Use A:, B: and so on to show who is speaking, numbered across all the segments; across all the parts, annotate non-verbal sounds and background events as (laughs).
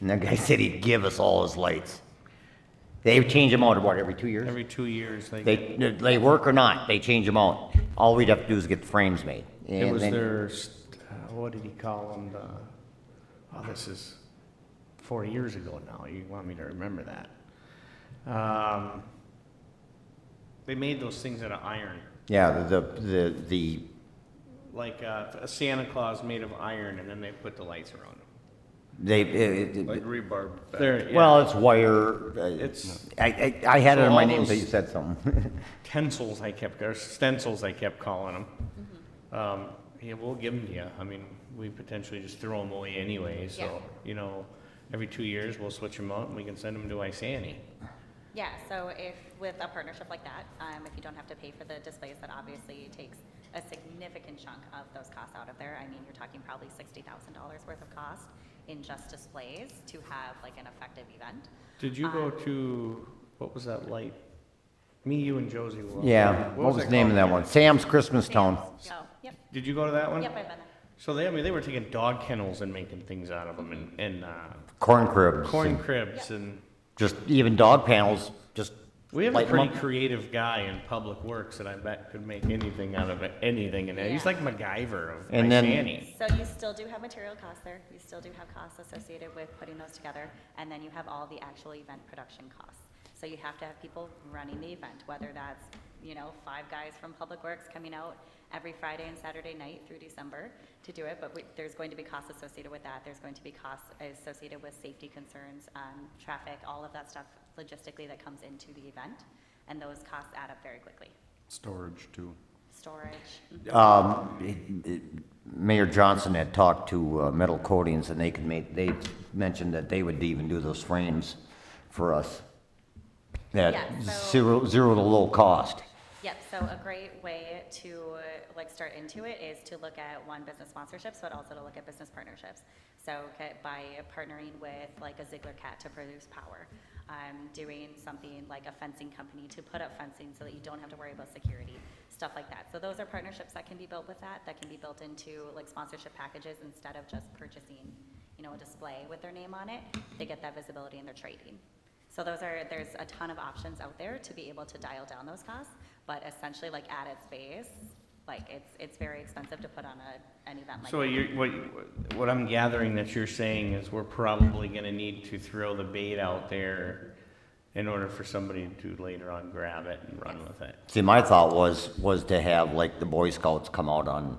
A: and that guy (laughs) said he'd give us all his lights. They change them out about every two years?
B: Every two years, they, get-
A: They, they work or not, they change them out. All we'd have to do is get the frames made.
B: it
A: And
B: was
A: then-
B: their, st- uh, what did he call them? The- Oh, this is four years ago now. You want me to remember that? Um, They made those things out of iron,
A: Yeah, the, the, the,
B: like uh, a Santa Claus made of iron, and then they put the lights around them.
A: they, it- it-
C: Like rebarb. back.
B: They're- yeah,
A: well, it's wire. uh,
B: It's-
A: I, I, I had it
B: So
A: in my
B: all
A: name, but you
B: those-
A: said something. (laughs)
B: Tensils I kept, or stencils I kept calling them. Um, yeah, we'll give them to you. I mean, we potentially just throw them away anyway,
D: Yeah.
B: so, you know, every two years, we'll switch them out and we can send them to Isani.
D: Yeah, so if, with a partnership like that, um, if you don't have to pay for the displays, that obviously takes a significant chunk of those costs out of there. I mean, you're talking probably sixty thousand dollars worth of cost in just displays to have like an effective event.
B: Did you go to, what was that light? Me, you, and Josie were.
A: Yeah, what was the name of that one? Sam's Christmas Town.
D: So, Oh, yep,
B: Did you go to that one?
D: yep, I've been there.
B: So they, I mean, they were taking dog kennels and making things out of them and, and, uh,
A: Corn cribs.
B: corn
A: and
B: cribs and.
A: Just even dog panels, just.
B: We have a
A: light 'em
B: pretty
A: up.
B: creative guy in public works that I bet could make anything out of it, anything in it. He's
D: Yeah.
B: like MacGyver of
A: And then-
B: Isani.
D: So you still do have material costs there, you still do have costs associated with putting those together, and then you have all the actual event production costs. So you have to have people running the event, whether that's, you know, five guys from Public Works coming out every Friday and Saturday night through December to do it, but we- there's going to be costs associated with that, there's going to be costs associated with safety concerns, um, traffic, all of that stuff logistically that comes into the event, and those costs add up very quickly.
C: Storage too.
D: Storage,
A: Um, it- it- Mayor Johnson had talked to uh, Metal Coatings and they could make, they mentioned that they would even do those frames for us. At
D: Yeah, so-
A: zero, zero to low cost.
D: Yep, so a great way to uh, like start into it is to look at one business sponsorships, but also to look at business partnerships. So ca- by partnering with like a Ziegler Cat to produce power, um, doing something like a fencing company to put up fencing so that you don't have to worry about security, stuff like that. So those are partnerships that can be built with that, that can be built into like sponsorship packages instead of just purchasing, you know, a display with their name on it. They get that visibility in their trading. So those are, there's a ton of options out there to be able to dial down those costs, but essentially like at its base, like it's, it's very expensive to put on a, an event like
B: So what
D: that.
B: you're, what, what I'm gathering that you're saying is we're probably gonna need to throw the bait out there in order for somebody to later on grab it and run with it.
A: See, my thought was, was to have like the Boy Scouts come out on,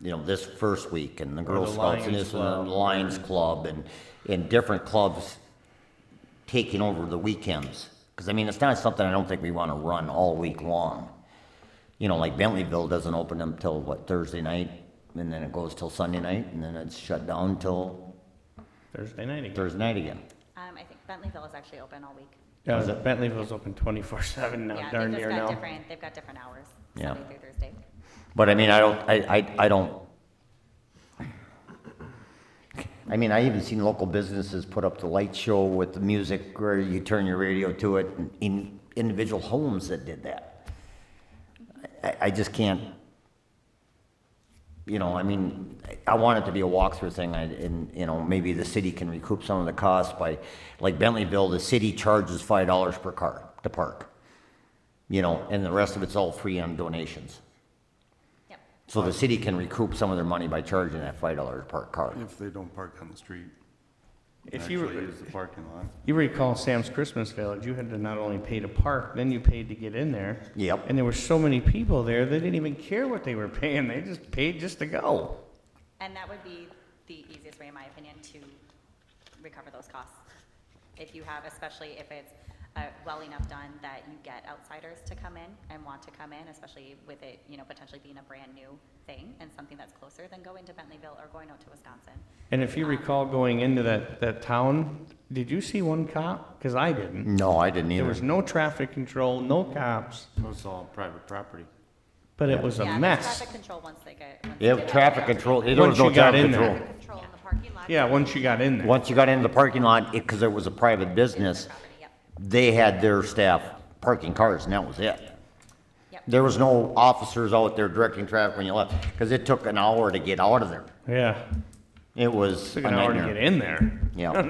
A: you know, this first week and the Girl
B: the
A: Scouts and
B: Lions
A: this and the
B: Club.
A: Lions Club and, and different clubs taking over the weekends. Cause I mean, it's not something I don't think we wanna run all week long. You know, like Bentleyville doesn't open them till what, Thursday night? And then it goes till Sunday night and then it's shut down till
B: Thursday night again.
A: Thursday night again.
D: Um, I think Bentleyville is actually open all week.
B: Yeah, Bentleyville's open twenty-four seven now,
D: Yeah,
B: darn
D: they've
B: near
D: just got
B: now.
D: different, they've got different hours,
A: Yeah.
D: Sunday through Thursday.
A: But I mean, I don't, I, I, I don't. I mean, I even seen local businesses put up the light show with the music where you turn your radio to it and in individual homes that did that. I, I just can't, you know, I mean, I want it to be a walkthrough thing I- and, you know, maybe the city can recoup some of the cost by, like Bentleyville, the city charges five dollars per car to park. You know, and the rest of it's all free on donations.
D: Yep.
A: So the city can recoup some of their money by charging that five dollars per car.
C: If they don't park on the street,
B: If
C: actually
B: you,
C: use the parking lot.
B: you recall Sam's Christmas Village, you had to not only pay to park, then you paid to get in there.
A: Yep.
B: And there were so many people there, they didn't even care what they were paying. They just paid just to go.
D: And that would be the easiest way, in my opinion, to recover those costs. If you have, especially if it's uh, well enough done that you get outsiders to come in and want to come in, especially with it, you know, potentially being a brand-new thing and something that's closer than going to Bentleyville or going out to Wisconsin.
B: And if you recall going into that, that town, did you see one cop? Because I didn't.
A: No, I didn't
B: There was
A: either.
B: no traffic control, no cops,
C: So it's all private property.
B: but it was
D: Yeah,
B: a
D: there's
B: mess.
D: Traffic control once they get. once they
A: Yeah,
D: get
A: traffic
D: out there.
A: control, there
B: Once
A: was no
B: you got
A: traffic
B: in there.
A: control.
E: control in the parking lot.
B: Yeah, once you got in there.
A: Once you got into the parking lot, it, cause it was a private business,
D: Property, Yep,
A: they had their staff parking cars and that was it.
D: yep.
A: There was no officers out there directing traffic when you left, cause it took an hour to get out of there.
B: Yeah,
A: It was
B: took
A: a
B: an hour to
A: nightmare.
B: get in there. (laughs)
A: Yeah.